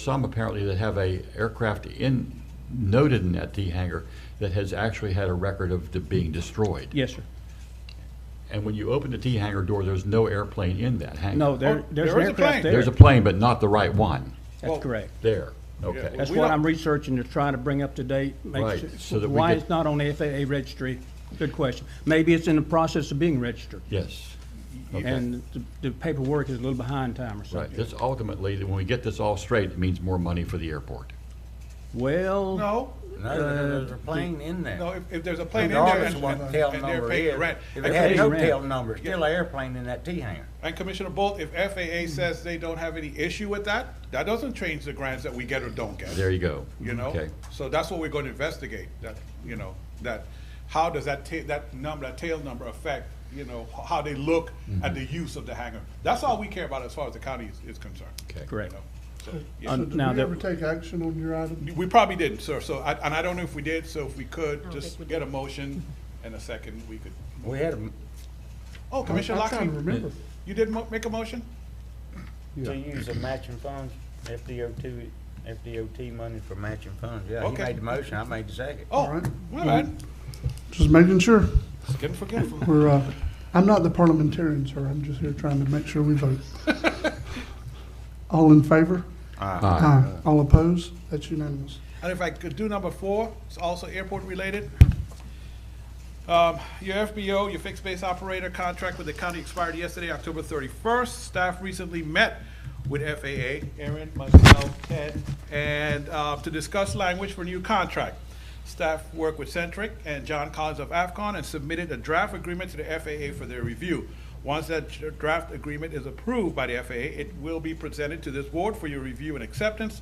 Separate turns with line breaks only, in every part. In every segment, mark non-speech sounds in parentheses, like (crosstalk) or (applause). Some apparently that have a aircraft in, noted in that T hangar that has actually had a record of de- being destroyed.
Yes, sir.
And when you open the T hangar door, there's no airplane in that hangar.
No, there,
Oh,
there's
there
an
is a plane.
aircraft there.
There's a plane, but not the right one.
That's correct.
There, okay.
That's
We
what
don't-
I'm researching to try to bring up to date. make
Right,
sure-
so that we
Why
could-
it's not on the FAA registry? Good question. Maybe it's in the process of being registered.
Yes. Okay.
And the- the paperwork is a little behind time or
Right,
something.
this ultimately, when we get this all straight, it means more money for the airport.
Well,
No,
No, there's a plane in there.
Uh, no, if, if there's a plane in there
Regardless
and,
of what
and-
tail
and they're
number
paying the
is.
rent.
If it
And
had
paying
no
rent.
tail number, still an airplane in that T hangar.
and Commissioner Bolt, if FAA says they don't have any issue with that, that doesn't change the grants that we get or don't get.
There you go.
You know,
Okay.
so that's what we're gonna investigate, that, you know, that, how does that ta- that number, that tail number affect, you know, h- how they look
Mm-hmm.
at the use of the hangar? That's all we care about as far as the county is, is concerned.
Okay.
you
correct.
know. So, yeah.
Uh,
So did
now
we
that-
ever take action on your item?
We probably didn't, sir, so, I- and I don't know if we did, so if we could,
don't
just
think we
get a
(laughs)
motion and a second, we could.
We had a,
Oh, Commissioner
I'm trying to
Lockley,
remember.
you did mo- make a motion?
Yeah.
to use the matching funds, FDOT, FDOT money for matching funds. Yeah, he
Okay.
made the motion, I made the second.
Oh,
All right.
my bad,
Just making sure.
It's getting forgetful.
We're, (laughs) uh, I'm not the parliamentarian, sir. I'm just here trying to make sure we (laughs) vote. All in favor? Aye. All opposed? That's unanimous.
And if I could do number four, it's also airport related. Um, Your FBO, your fixed base operator contract with the county expired yesterday, October thirty-first. Staff recently met with FAA, Aaron, myself, Ted, and uh, to discuss language for new contract. Staff worked with Centric and John Collins of AFCON and submitted a draft agreement to the FAA for their review. Once that dr- draft agreement is approved by the FAA, it will be presented to this board for your review and acceptance.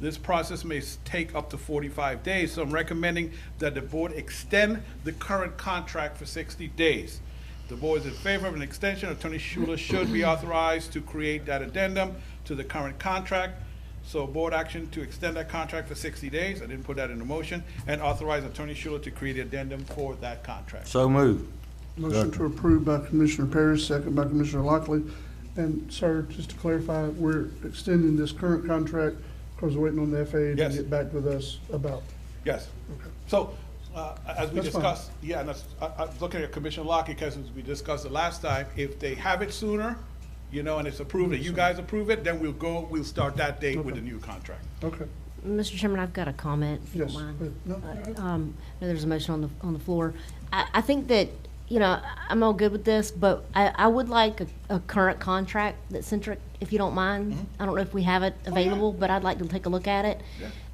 This process may s- take up to 45 days, so I'm recommending that the board extend the current contract for 60 days. The board is in favor of an extension. Attorney Schuler should be authorized to create that addendum to the current contract. So board action to extend that contract for 60 days. I didn't put that in the motion. And authorize Attorney Schuler to create the addendum for that contract.
So move.
Motion to approve by Commissioner Parrish, second by Commissioner Lockley. And sir, just to clarify, we're extending this current contract because we're waiting on the FAA to
Yes.
get back with us about.
Yes. So, uh, as we
That's fine.
discussed, yeah, and that's- I, I was looking at Commissioner Locke, because as we discussed the last time, if they have it sooner, you know, and it's approved, and you guys approve it, then we'll go, we'll start that date with the new contract.
Okay,
Mr. Chairman, I've got a comment. if you don't
yes.
mind.
but- no,
Um, I know there's a motion on the, on the floor. I, I think that, you know, I'm all good with this, but I, I would like a, a current contract that Centric, if you don't mind.
Mm-hmm.
I don't know if we have it
Oh,
available, but I'd like to take a look at it.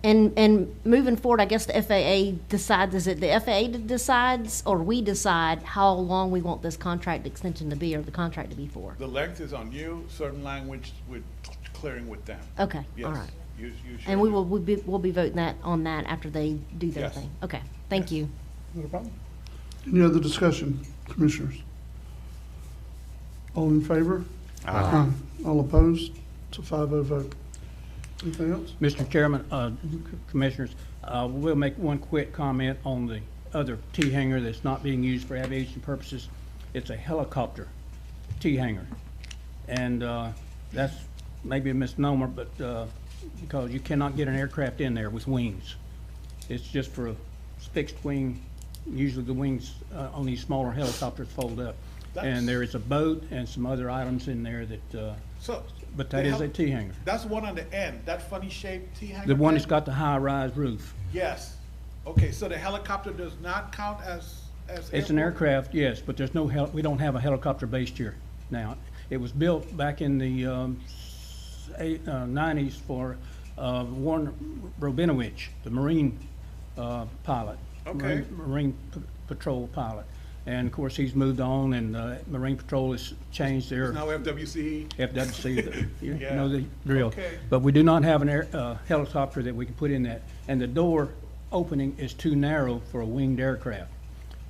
And, and moving forward, I guess the FAA decides, is it the FAA that decides or we decide how long we want this contract extension to be or the contract to be for?
The length is on you, certain language with clearing with them.
Okay, all
Yes,
right.
you, you should.
And we will, we'll be, we'll be voting that, on that after they do their
Yes.
thing. Okay, thank you.
not a problem. Any other discussion, commissioners? All in favor? Aye. All opposed? It's a five-oh vote. Anything else?
Mr. Chairman, uh, Commissioners, uh, we'll make one quick comment on the other T hangar that's not being used for aviation purposes. It's a helicopter T hangar. And uh, that's maybe a misnomer, but uh, because you cannot get an aircraft in there with wings. It's just for a fixed wing, usually the wings uh, on these smaller helicopters fold up.
That's-
And there is a boat and some other items in there that, uh,
So.
but that is a T hangar.
That's one on the end, that funny shaped T hangar.
The one
thing?
that's got the high-rise roof.
Yes. Okay, so the helicopter does not count as, as.
It's an aircraft, yes, but there's no hel, we don't have a helicopter based here now. It was built back in the, um, s- eight, uh, nineties for, uh, Warren Robinowitz, the Marine, uh, pilot.
Okay.
Marine- Marine p- Patrol pilot. And of course, he's moved on and, uh, Marine Patrol has changed their.
Now FWC.
FWC, the- you
Yeah.
know the drill.
Okay.
But we do not have an air, uh, helicopter that we can put in that, and the door opening is too narrow for a winged aircraft.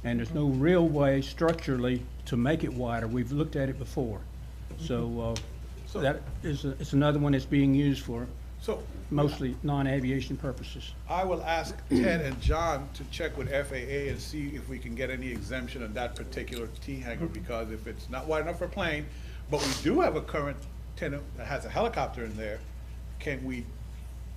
And there's no real way structurally to make it wider, we've looked at it before.
Mm-hmm.
So, uh, that is, it's another one that's being used for
So
mostly non-aviation purposes.
I will ask Ted and John to check with FAA and see if we can get any exemption on that particular T hangar, because if it's not wide enough for plane, but we do have a current tenant that has a helicopter in there, can we